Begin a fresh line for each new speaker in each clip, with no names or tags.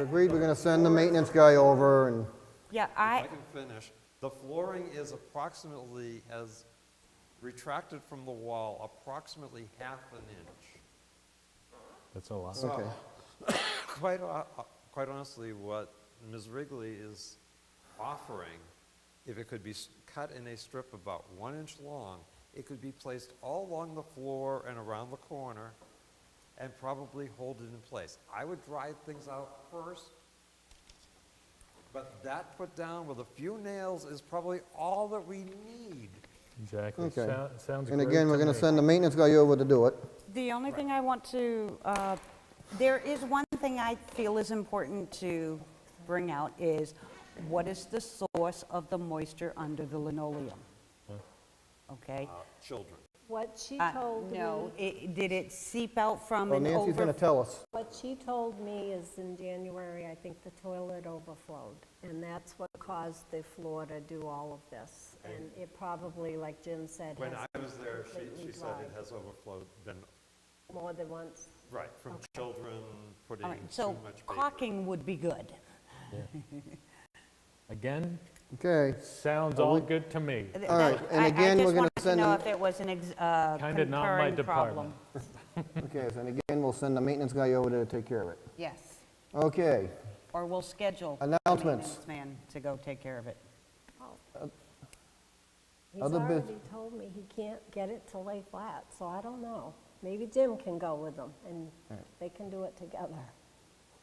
Agreed, we're gonna send the maintenance guy over and,
Yeah,
If
I,
I can finish. The flooring is approximately, has retracted from the wall approximately half an inch.
That's a lot.
okay.
Quite, ho- quite honestly, what Ms. Wrigley is offering, if it could be s- cut in a strip about one inch long, it could be placed all along the floor and around the corner and probably hold it in place. I would dry things out first, but that put down with a few nails is probably all that we need.
Exactly.
Okay.
Sou- Sounds great
And again, we're
to
gonna
me.
send the maintenance guy over to do it.
the only thing I want to, uh, there is one thing I feel is important to bring out is, what is the source of the moisture under the linoleum? Okay?
Uh, Children.
What she
Uh,
told me,
No, it- did it seep out from
Well,
an
Nancy's gonna
over...
tell us.
what she told me is in January, I think the toilet overflowed, and that's what caused the floor to do all of this. And it probably, like Jim said,
When
has
I was there, she, she
completely
said it
dried
has overflowed, been,
more than once.
right, from children putting
All
too
right, so
much paper.
caulking would be good.
Again,
Okay,
sounds all good to me.
Th-
All
that-
right, and
I-
again, we're gonna
I just wanted to
send
know
them-
if it was an ex- uh,
Kinda not my
concurring
department.
problem.
okay, so, and again, we'll send the maintenance guy over to take care of it.
Yes,
Okay,
or we'll schedule. the
Announcements.
maintenance Man to go take care of it.
He's
Other bus-
already told me he can't get it to lay flat, so I don't know. Maybe Jim can go with them, and they can do it together.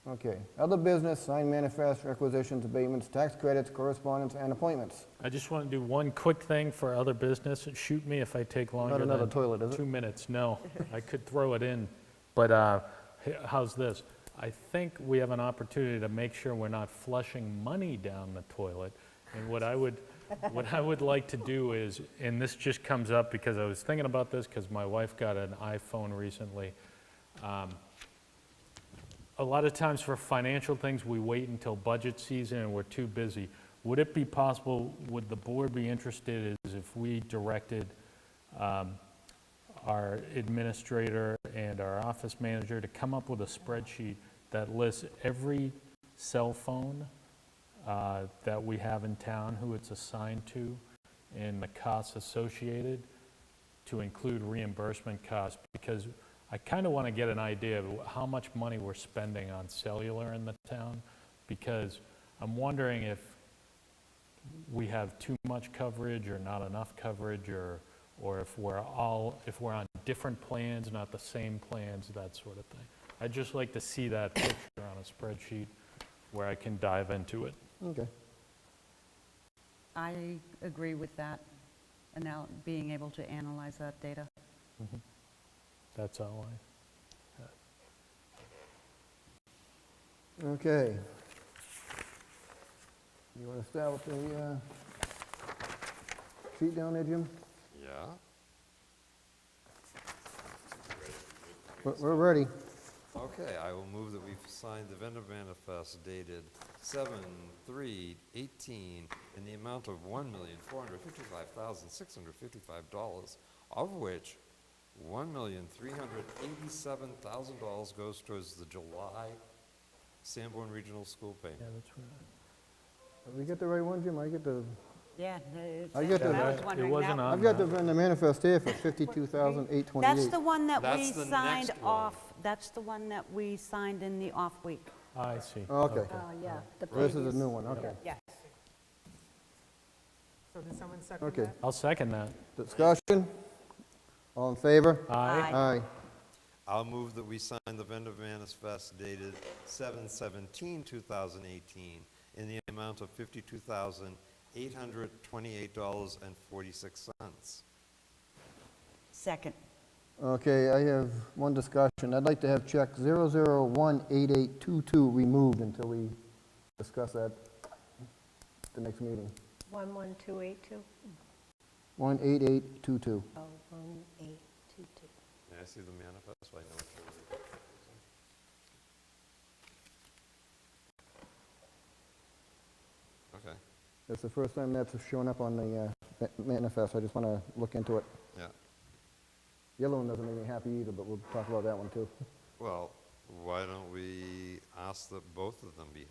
okay. Other business, signed manifests, requisitions, abatements, tax credits, correspondence, and appointments.
I just want to do one quick thing for other business. Shoot me if I take longer
another
than
toilet, is it?
two minutes. No, I could throw it in, but uh, h- how's this? I think we have an opportunity to make sure we're not flushing money down the toilet. And what I would, what I would like to do is, and this just comes up because I was thinking about this because my wife got an iPhone recently. a lot of times for financial things, we wait until budget season and we're too busy. Would it be possible, would the board be interested is if we directed um, our administrator and our office manager to come up with a spreadsheet that lists every cell phone uh, that we have in town, who it's assigned to, and the costs associated? to include reimbursement costs, because I kind of want to get an idea of how much money we're spending on cellular in the town, because I'm wondering if we have too much coverage or not enough coverage, or, or if we're all, if we're on different plans, not the same plans, that sort of thing. I'd just like to see that picture on a spreadsheet where I can dive into it.
Okay,
I agree with that, and now being able to analyze that data.
That's all I.
okay. You wanna start with the, uh, sheet down there, Jim?
Yeah?
We're, we're ready.
Okay, I will move that we've signed the vendor manifest dated seven, three, eighteen, in the amount of one million, four hundred fifty-five thousand, six hundred fifty-five dollars, of which one million, three hundred eighty-seven thousand dollars goes towards the July Sanborn Regional School payment.
that's right.
Did we get the right one, Jim? I get the,
Yeah.
I get the-
I
I
was
was
wondering wasn't that- on-
I've got the the manifest here for fifty-two thousand, eight twenty-eight.
That's the one that we
That's the
signed
next one.
off, that's the one that we signed in the off week.
I see.
Okay,
Oh, yeah. the
this is
previous-
a new one, okay.
Yes.
So did someone second
Okay,
that?
I'll second that.
discussion? All in favor?
Aye.
Aye.
I'll move that we sign the vendor manifest dated seven, seventeen, two thousand eighteen, in the amount of fifty-two thousand, eight hundred twenty-eight dollars and forty-six cents.
Second.
Okay, I have one discussion. I'd like to have check 0018822 removed until we discuss that at the next meeting.
11282?
18822.
Oh, 1822.
May I see the manifest? I know what you're reading. Okay,
That's the first time that's shown up on the uh, ma- manifest. I just want to look into it.
yeah.
Yellow one doesn't make me happy either, but we'll talk about that one too.
Well, why don't we, ask that both of them be